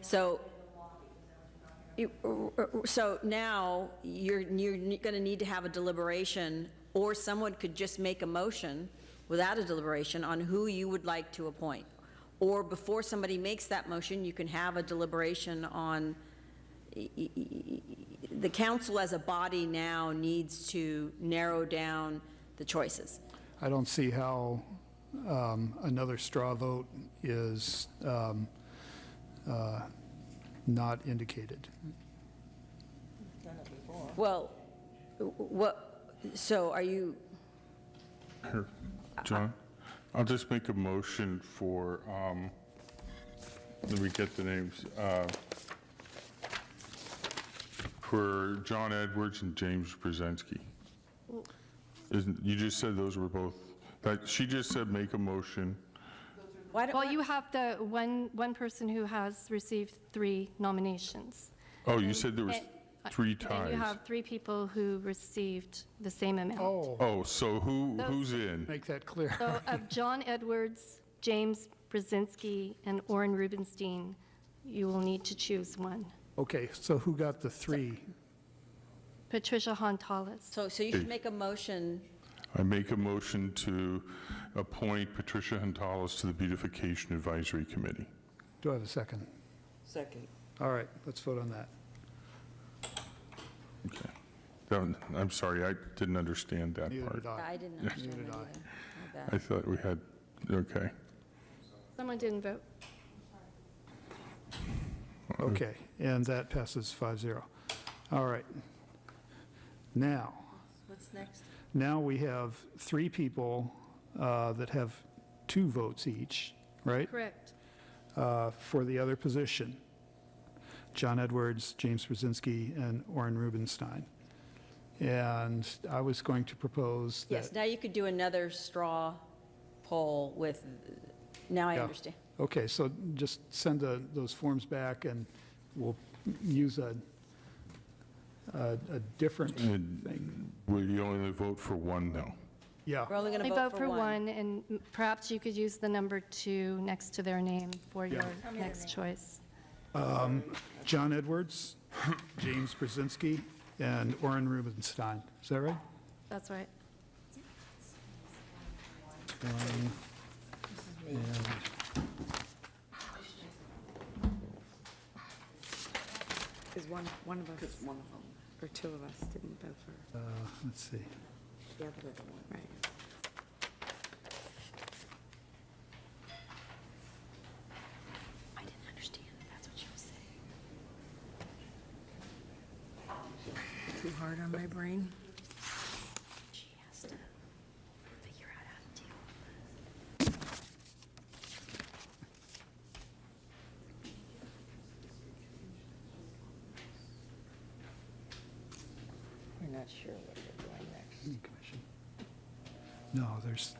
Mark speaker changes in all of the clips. Speaker 1: So, you- so now, you're, you're going to need to have a deliberation, or someone could just make a motion without a deliberation on who you would like to appoint. Or before somebody makes that motion, you can have a deliberation on, the council as a body now needs to narrow down the choices.
Speaker 2: I don't see how um, another straw vote is um, uh, not indicated.
Speaker 1: Well, what, so are you,
Speaker 3: Here, John, I'll just make a motion for, um, let me get the names, uh, for John Edwards and James Brzezinski. Isn't, you just said those were both, that, she just said make a motion.
Speaker 1: why don't,
Speaker 4: Well, you have the one, one person who has received three nominations.
Speaker 3: Oh, you said there was
Speaker 4: And-
Speaker 3: three
Speaker 4: And you
Speaker 3: ties.
Speaker 4: have three people who received the same amount.
Speaker 3: Oh, so who,
Speaker 4: Those-
Speaker 3: who's in?
Speaker 2: Make that clear.
Speaker 4: So of John Edwards, James Brzezinski, and Orin Rubenstein, you will need to choose one.
Speaker 2: Okay, so who got the three?
Speaker 4: Patricia Hontalas.
Speaker 1: so, so you should make a motion
Speaker 3: I make a motion to appoint Patricia Huntalas to the Beautification Advisory Committee.
Speaker 2: Do I have a second?
Speaker 5: Second.
Speaker 2: All right, let's vote on that.
Speaker 3: Okay. That one- I'm sorry, I didn't understand that
Speaker 2: Neither
Speaker 3: part.
Speaker 2: did I.
Speaker 1: I didn't understand
Speaker 2: Neither did
Speaker 1: that
Speaker 2: I.
Speaker 1: either. I bet.
Speaker 3: I thought we had, okay.
Speaker 4: Someone didn't vote.
Speaker 2: Okay, and that passes 5-0. All right. Now,
Speaker 1: What's next?
Speaker 2: now we have three people uh, that have two votes each, right?
Speaker 4: Correct.
Speaker 2: uh, for the other position. John Edwards, James Brzezinski, and Orin Rubenstein. And I was going to propose
Speaker 1: Yes,
Speaker 2: that.
Speaker 1: now you could do another straw poll with, now I
Speaker 2: Yeah.
Speaker 1: understand.
Speaker 2: Okay, so just send the- those forms back and we'll use a, a a different thing.
Speaker 3: And will you only vote for one, though?
Speaker 1: We're
Speaker 2: Yeah,
Speaker 1: only going
Speaker 4: We
Speaker 1: to
Speaker 4: vote for one, and perhaps you could use the number two next to their name for your next choice.
Speaker 2: John Edwards, James Brzezinski, and Orin Rubenstein. Is that right?
Speaker 4: That's right.
Speaker 2: One, and-
Speaker 5: Because one, one of us. one of them. Or two of us didn't vote for
Speaker 2: uh, Let's see.
Speaker 5: the other one. Right.
Speaker 1: I didn't understand, that's what she was saying.
Speaker 5: Too hard on my brain.
Speaker 1: She has to figure out how to deal
Speaker 5: We're not sure what we're doing next.
Speaker 2: Commission. No, there's,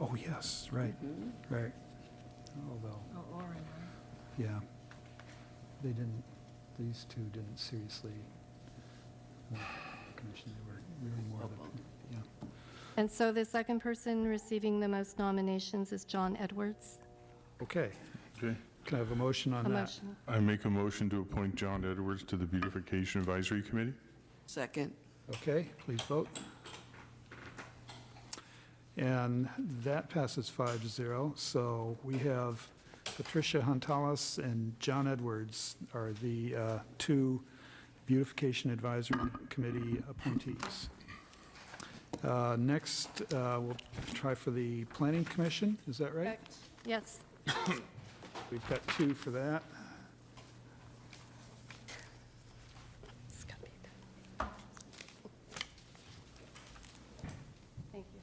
Speaker 2: oh, yes, right, right. Although,
Speaker 5: Oh, Orin,
Speaker 2: yeah, they didn't, these two didn't seriously want the commission, they were really more of a, yeah.
Speaker 4: And so the second person receiving the most nominations is John Edwards.
Speaker 2: Okay,
Speaker 3: Okay.
Speaker 2: can I have a motion on
Speaker 4: A
Speaker 2: that?
Speaker 4: motion.
Speaker 3: I make a motion to appoint John Edwards to the Beautification Advisory Committee?
Speaker 5: Second.
Speaker 2: Okay, please vote. And that passes five to zero. So we have Patricia Huntalas and John Edwards are the uh, two Beautification Advisory Committee appointees. Uh, Next, uh, we'll try for the Planning Commission, is that right?
Speaker 4: Correct. Yes.
Speaker 2: We've got two for that.
Speaker 4: Thank you.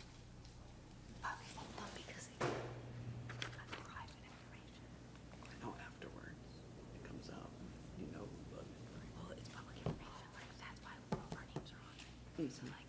Speaker 5: I know afterwards it comes out, you know. Well, it's public information, like, that's why our names are on it. So like,